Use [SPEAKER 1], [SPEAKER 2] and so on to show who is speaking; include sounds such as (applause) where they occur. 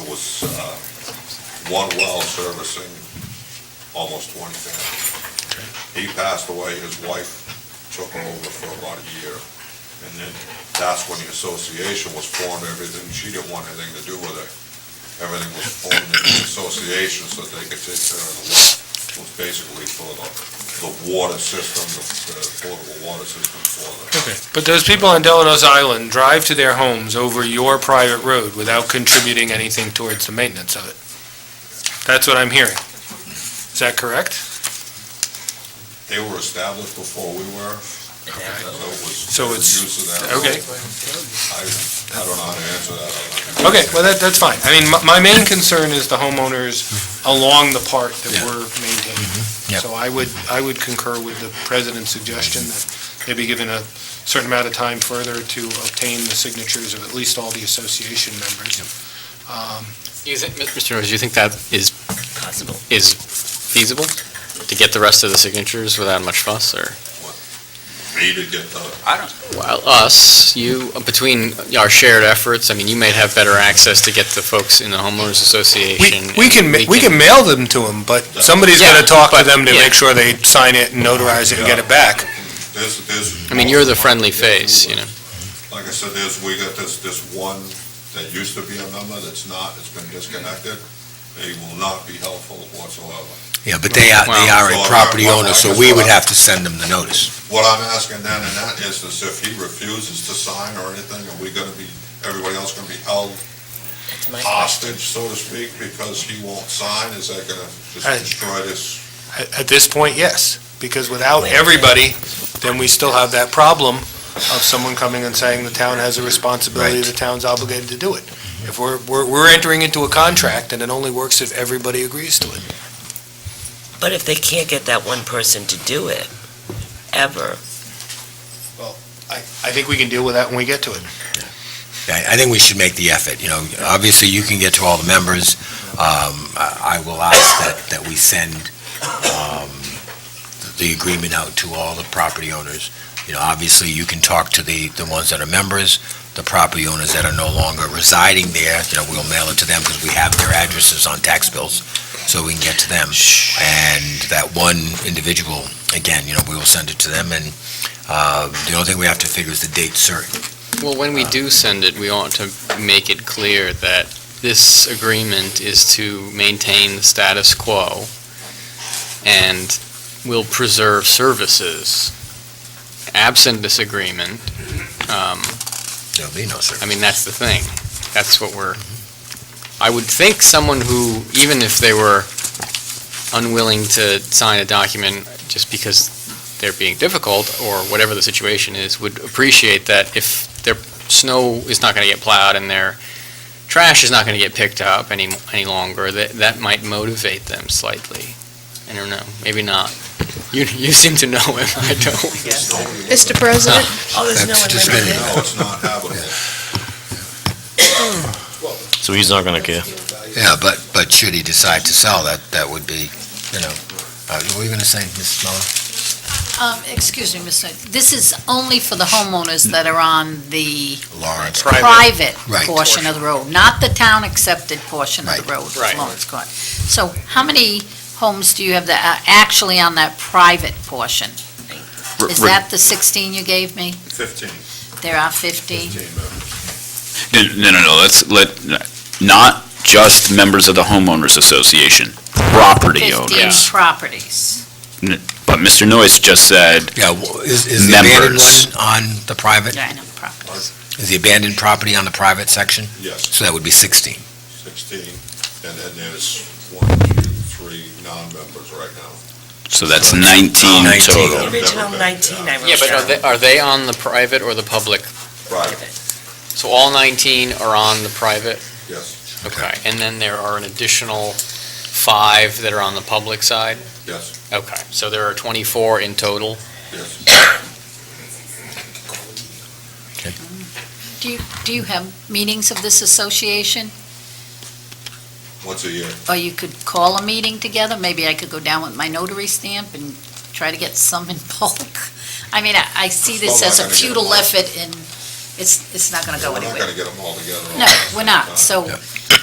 [SPEAKER 1] It was, uh, one well servicing almost twenty families. He passed away, his wife took over for about a year. And then that's when the association was formed, everything, she didn't want anything to do with it. Everything was formed in the association so that they could take care of the well. It was basically for the, the water system, the the portable water system for the
[SPEAKER 2] Okay, but those people on Delanos Island drive to their homes over your private road without contributing anything towards the maintenance of it. That's what I'm hearing. Is that correct?
[SPEAKER 1] They were established before we were.
[SPEAKER 2] Okay.
[SPEAKER 1] So it was.
[SPEAKER 2] So it's-
[SPEAKER 1] Use of that.
[SPEAKER 2] Okay,
[SPEAKER 1] I, I don't know how to answer that.
[SPEAKER 2] okay, well, that, that's fine. I mean, my, my main concern is the homeowners along the part that we're maintaining.
[SPEAKER 3] Yep.
[SPEAKER 2] So I would, I would concur with the president's suggestion that they be given a certain amount of time further to obtain the signatures of at least all the association members. Um,
[SPEAKER 4] You think, Mr. Rose, you think that is,
[SPEAKER 5] Possible.
[SPEAKER 4] is feasible? To get the rest of the signatures without much fuss, or?
[SPEAKER 1] Me to get the,
[SPEAKER 4] Well, us, you, uh, between our shared efforts, I mean, you may have better access to get the folks in the homeowners association.
[SPEAKER 2] We, we can, ma- we can mail them to them, but somebody's
[SPEAKER 4] Yeah,
[SPEAKER 2] gonna talk to
[SPEAKER 4] but-
[SPEAKER 2] them to
[SPEAKER 4] yeah.
[SPEAKER 2] make sure they sign it and notarize it and get it back.
[SPEAKER 1] this, this.
[SPEAKER 4] I mean, you're the friendly face, you know?
[SPEAKER 1] Like I said, there's, we got this, this one that used to be a member that's not, it's been disconnected. They will not be helpful whatsoever.
[SPEAKER 3] Yeah, but they are, they are a property owner, so we would have to send them the notice.
[SPEAKER 1] What I'm asking then in that instance, if he refuses to sign or anything, are we gonna be, everybody else gonna be held hostage, so to speak, because he won't sign? Is that gonna just
[SPEAKER 2] Hey.
[SPEAKER 1] destroy this?
[SPEAKER 2] At, at this point, yes, because without everybody, then we still have that problem of someone coming and saying the town has a responsibility,
[SPEAKER 3] Right.
[SPEAKER 2] the town's obligated to do it. If we're, we're, we're entering into a contract, and it only works if everybody agrees to it.
[SPEAKER 5] But if they can't get that one person to do it, ever,
[SPEAKER 2] I, I think we can deal with that when we get to it.
[SPEAKER 3] I, I think we should make the effort, you know, obviously you can get to all the members. Um, I, I will ask that, that we send, um, the agreement out to all the property owners. You know, obviously you can talk to the, the ones that are members, the property owners that are no longer residing there, you know, we'll mail it to them because we have their addresses on tax bills, so we can get to them. And that one individual, again, you know, we will send it to them and, uh, the only thing we have to figure is the date certain.
[SPEAKER 4] Well, when we do send it, we ought to make it clear that this agreement is to maintain the status quo and will preserve services absent this agreement. Um,
[SPEAKER 3] There'll be no
[SPEAKER 4] I
[SPEAKER 3] certain.
[SPEAKER 4] mean, that's the thing. That's what we're, I would think someone who, even if they were unwilling to sign a document just because they're being difficult or whatever the situation is, would appreciate that if their snow is not going to get plowed and their trash is not going to get picked up any, any longer, that, that might motivate them slightly. I don't know, maybe not. You, you seem to know him, I don't.
[SPEAKER 6] Mr. President,
[SPEAKER 5] oh, there's no
[SPEAKER 3] That's
[SPEAKER 5] one
[SPEAKER 3] just
[SPEAKER 5] living
[SPEAKER 3] been-
[SPEAKER 5] there.
[SPEAKER 1] No, it's not habitable.
[SPEAKER 7] So he's not gonna care.
[SPEAKER 3] Yeah, but, but should he decide to sell, that, that would be, you know, uh, what were you gonna say, Mrs. Muller?
[SPEAKER 8] Um, excuse me, Mr. Knight. This is only for the homeowners that are on the
[SPEAKER 3] Lawrence?
[SPEAKER 8] private
[SPEAKER 3] Right.
[SPEAKER 8] portion of the road, not the town-accepted portion of the road,
[SPEAKER 4] Right.
[SPEAKER 8] Lawrence Court. So how many homes do you have that are actually on that private portion? Is that the 16 you gave me?
[SPEAKER 1] Fifteen.
[SPEAKER 8] There are 15?
[SPEAKER 7] No, no, no, no, let's, let, not just members of the homeowners association, property
[SPEAKER 8] 15
[SPEAKER 7] owners.
[SPEAKER 8] properties.
[SPEAKER 7] But Mr. Noyce just said,
[SPEAKER 3] Yeah, well, is, is the abandoned
[SPEAKER 7] Members.
[SPEAKER 3] one on the private,
[SPEAKER 8] Yeah, I know, properties.
[SPEAKER 3] is the abandoned property on the private section?
[SPEAKER 1] Yes,
[SPEAKER 3] So that would be sixteen.
[SPEAKER 1] sixteen, and then there's one, two, three non-members right now.
[SPEAKER 7] so that's
[SPEAKER 1] So it's
[SPEAKER 7] 19
[SPEAKER 3] 19.
[SPEAKER 7] total.
[SPEAKER 5] The Original nineteen, I
[SPEAKER 4] Yeah,
[SPEAKER 5] wrote
[SPEAKER 4] but are
[SPEAKER 5] down.
[SPEAKER 4] they, are they on the private or the public
[SPEAKER 1] Right,
[SPEAKER 4] So all 19 are on the private?
[SPEAKER 1] yes,
[SPEAKER 4] Okay. And then there are an additional five that are on the public side?
[SPEAKER 1] yes,
[SPEAKER 4] Okay, so there are 24 in total?
[SPEAKER 8] (coughs)
[SPEAKER 1] yes.
[SPEAKER 8] Do you, do you have meetings of this association?
[SPEAKER 1] Once a year,
[SPEAKER 8] Or you could call a meeting together? Maybe I could go down with my notary stamp and try to get some in bulk. I mean, I, I see this
[SPEAKER 1] Well,
[SPEAKER 8] as
[SPEAKER 1] we're not gonna get
[SPEAKER 8] a
[SPEAKER 1] them
[SPEAKER 8] futile
[SPEAKER 1] all.
[SPEAKER 8] effort and it's, it's not gonna go
[SPEAKER 1] we're not
[SPEAKER 8] anywhere.
[SPEAKER 1] gonna get them all together. all
[SPEAKER 8] No,
[SPEAKER 1] at the same
[SPEAKER 8] we're not,
[SPEAKER 1] time.
[SPEAKER 8] so